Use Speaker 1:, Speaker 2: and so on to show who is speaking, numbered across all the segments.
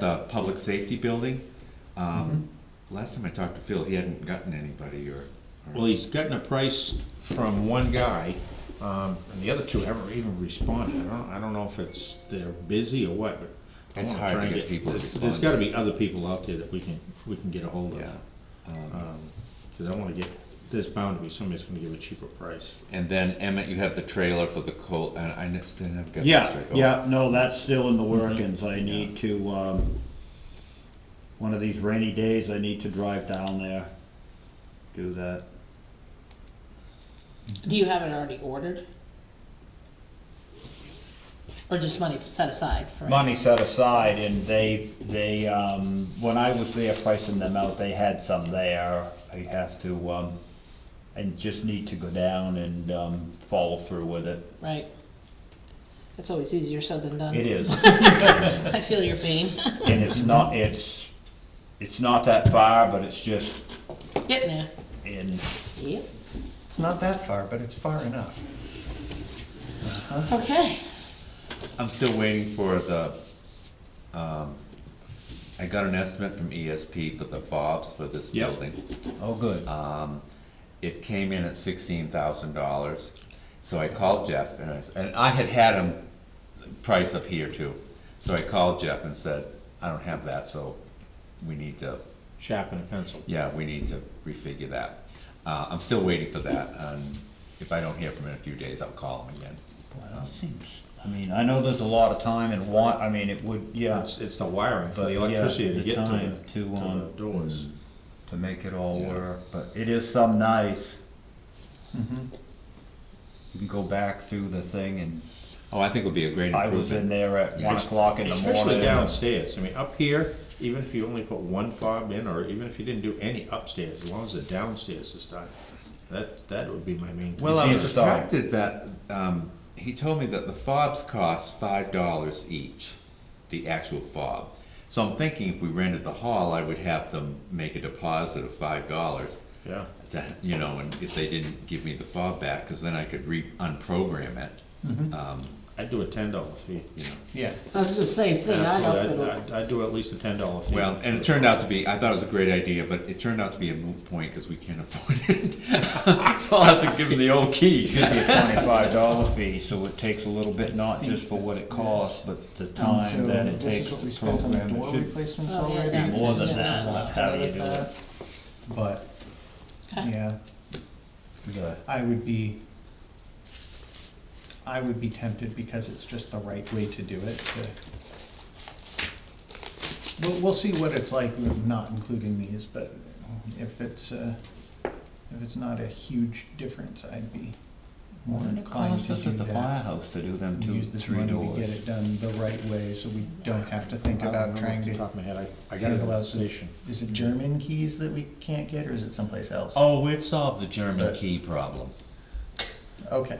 Speaker 1: the public safety building, um,
Speaker 2: Mm-hmm.
Speaker 1: last time I talked to Phil, he hadn't gotten anybody or,
Speaker 3: Well, he's gotten a price from one guy, um, and the other two haven't even responded. I don't, I don't know if it's, they're busy or what, but. I
Speaker 1: It's
Speaker 3: wanna
Speaker 1: hard
Speaker 3: try
Speaker 1: to
Speaker 3: and
Speaker 1: get people to
Speaker 3: there's- There's
Speaker 1: respond.
Speaker 3: gotta be other people out there that we can, we can get a hold of.
Speaker 1: yeah.
Speaker 3: Um, Cause I wanna get, there's bound to be somebody that's gonna give a cheaper price.
Speaker 1: And then Emmett, you have the trailer for the coal, and I n- still haven't got that
Speaker 2: Yeah,
Speaker 1: straight. Oh,
Speaker 2: yeah, no, that's still in the workings, I need to, um, one of these rainy days, I need to drive down there, do that.
Speaker 4: Do you have it already ordered? Or just money set aside for it?
Speaker 2: Money set aside, and they, they, um, when I was there pricing them out, they had some there, I have to, um, and just need to go down and, um, follow through with it,
Speaker 4: Right? That's always easier said than
Speaker 2: it
Speaker 4: done.
Speaker 2: is.
Speaker 4: I feel your pain,
Speaker 2: And it's not, it's, it's not that far, but it's just
Speaker 4: getting there.
Speaker 2: in,
Speaker 4: Yep,
Speaker 5: It's not that far, but it's far enough. Uh-huh.
Speaker 4: okay.
Speaker 1: Oh, I'm still waiting for the, um, I got an estimate from ESP for the fobs for this
Speaker 3: Yep.
Speaker 1: building.
Speaker 2: oh, good.
Speaker 1: It came in at sixteen thousand dollars, so I called Jeff and I, s- and I had had him price up here too. So I called Jeff and said, I don't have that, so we need to
Speaker 3: Sharp and a pencil.
Speaker 1: Yeah, we need to refigure that. Uh, I'm still waiting for that, and if I don't hear from him in a few days, I'll call him again.
Speaker 2: Well, it seems, I mean, I know there's a lot of time and want, I mean, it would, yeah,
Speaker 3: It's, it's the wiring for
Speaker 2: But,
Speaker 3: the
Speaker 2: yeah,
Speaker 3: electricity to
Speaker 2: the
Speaker 3: get to
Speaker 2: time
Speaker 3: the,
Speaker 2: to,
Speaker 3: to the
Speaker 2: um,
Speaker 3: doors.
Speaker 2: to make it all
Speaker 1: Yeah.
Speaker 2: work, but it is some nice.
Speaker 5: Mm-hmm.
Speaker 2: You can go back through the thing and,
Speaker 1: Oh, I think it'll be a great
Speaker 2: I was in
Speaker 1: improvement.
Speaker 2: there at one
Speaker 1: Yeah.
Speaker 2: o'clock in the morning.
Speaker 3: Especially downstairs. I mean, up here, even if you only put one fob in, or even if you didn't do any upstairs, as long as the downstairs is done, that, that would be my main concern.
Speaker 2: Well, I was shocked.
Speaker 1: Subtracted that, um, he told me that the fobs cost five dollars each, the actual fob. So I'm thinking if we rented the hall, I would have them make a deposit of five dollars.
Speaker 3: Yeah.
Speaker 1: to, you know, and if they didn't give me the fob back, cause then I could re, unprogram it. Um,
Speaker 3: I'd do a ten dollar fee.
Speaker 1: you know,
Speaker 5: Yeah.
Speaker 4: That's the same thing,
Speaker 3: Absolutely, I'd, I'd- I'd do at least a ten dollar fee.
Speaker 1: Well, and it turned out to be, I thought it was a great idea, but it turned out to be a moot point because we can't afford it. So I'll have to give him the old key.
Speaker 2: Should be a twenty-five dollar fee, so it takes a little bit, not just for what it costs, but the time that it takes
Speaker 5: This is what
Speaker 2: to
Speaker 5: we spent on the
Speaker 2: program
Speaker 5: door
Speaker 2: it. Should-
Speaker 5: replacements
Speaker 4: Oh, yeah,
Speaker 5: already.
Speaker 4: that's-
Speaker 2: More than
Speaker 4: yeah,
Speaker 2: that,
Speaker 4: no,
Speaker 2: that's how you do
Speaker 4: that-
Speaker 2: it.
Speaker 5: But,
Speaker 4: Okay.
Speaker 5: yeah,
Speaker 2: We gotta-
Speaker 5: I would be, I would be tempted because it's just the right way to do it. to- We'll, we'll see what it's like with not including these, but if it's, uh, if it's not a huge difference, I'd be more
Speaker 2: What did it
Speaker 5: inclined
Speaker 2: cost
Speaker 5: to
Speaker 2: us
Speaker 5: do
Speaker 2: at the
Speaker 5: that.
Speaker 2: firehouse to do them two,
Speaker 5: Use this
Speaker 2: three
Speaker 5: money to get
Speaker 2: doors?
Speaker 5: it done the right way, so we don't have to think
Speaker 3: I don't
Speaker 5: about
Speaker 3: remember
Speaker 5: trying
Speaker 3: off the
Speaker 5: to
Speaker 3: Top of my head, I, I got it at
Speaker 5: handle
Speaker 3: the
Speaker 5: out the-
Speaker 3: station.
Speaker 5: Is it German keys that we can't get, or is it someplace else?
Speaker 1: Oh, we've solved the German
Speaker 5: But-
Speaker 1: key problem.
Speaker 5: Okay.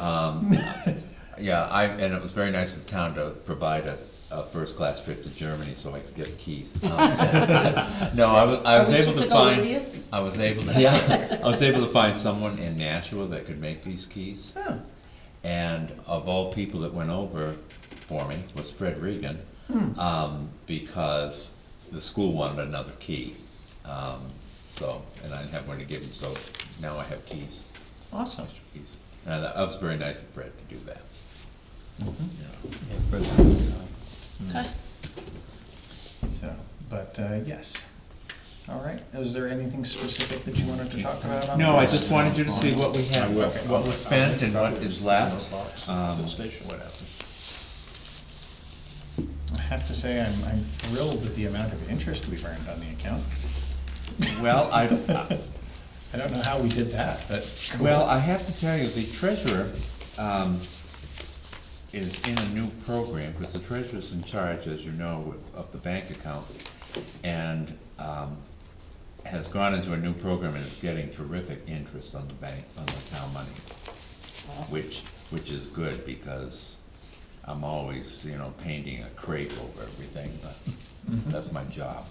Speaker 1: Yeah, I, and it was very nice of the town to provide a, a first-class trip to Germany so I could get the keys. Um, No, I was, I
Speaker 4: Are
Speaker 1: was
Speaker 4: we
Speaker 1: able
Speaker 4: supposed
Speaker 1: to
Speaker 4: to go with
Speaker 1: find,
Speaker 4: you?
Speaker 1: I was able to, yeah, I was able to find someone in Nashua that could make these keys.
Speaker 5: Oh,
Speaker 1: And of all people that went over for me was Fred Regan, um, because the school wanted another key. Um, so, and I didn't have one to give him, so now I have keys,
Speaker 5: awesome.
Speaker 1: keys. And that was very nice of Fred to do that. Yeah.
Speaker 4: Okay.
Speaker 5: So, but, uh, yes. All right, is there anything specific that you wanted to talk about on
Speaker 1: No, I
Speaker 5: this?
Speaker 1: just wanted you to see what we
Speaker 3: I
Speaker 1: have,
Speaker 3: will.
Speaker 1: what was spent and what is left.
Speaker 3: Box at
Speaker 1: Um,
Speaker 3: the station, what happens.
Speaker 5: I have to say, I'm, I'm thrilled at the amount of interest we've earned on the account.
Speaker 1: Well, I,
Speaker 5: I don't know how we did that, but.
Speaker 1: Well, I have to tell you, the treasurer, um, is in a new program, because the treasurer's in charge, as you know, of the bank accounts, and, um, has gone into a new program and is getting terrific interest on the bank, on the town money, which, which is good, because I'm always, you know, painting a crepe over everything, but that's my job.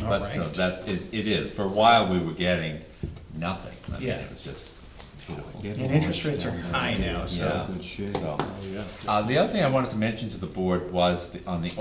Speaker 5: All
Speaker 1: But so
Speaker 5: right.
Speaker 1: that is, it is, for a while we were getting nothing, I mean,
Speaker 5: Yeah.
Speaker 1: it was just Beautiful.
Speaker 5: And interest rates are high now, so.
Speaker 1: Yeah, so, uh, the other thing I wanted to mention to the board was the- on the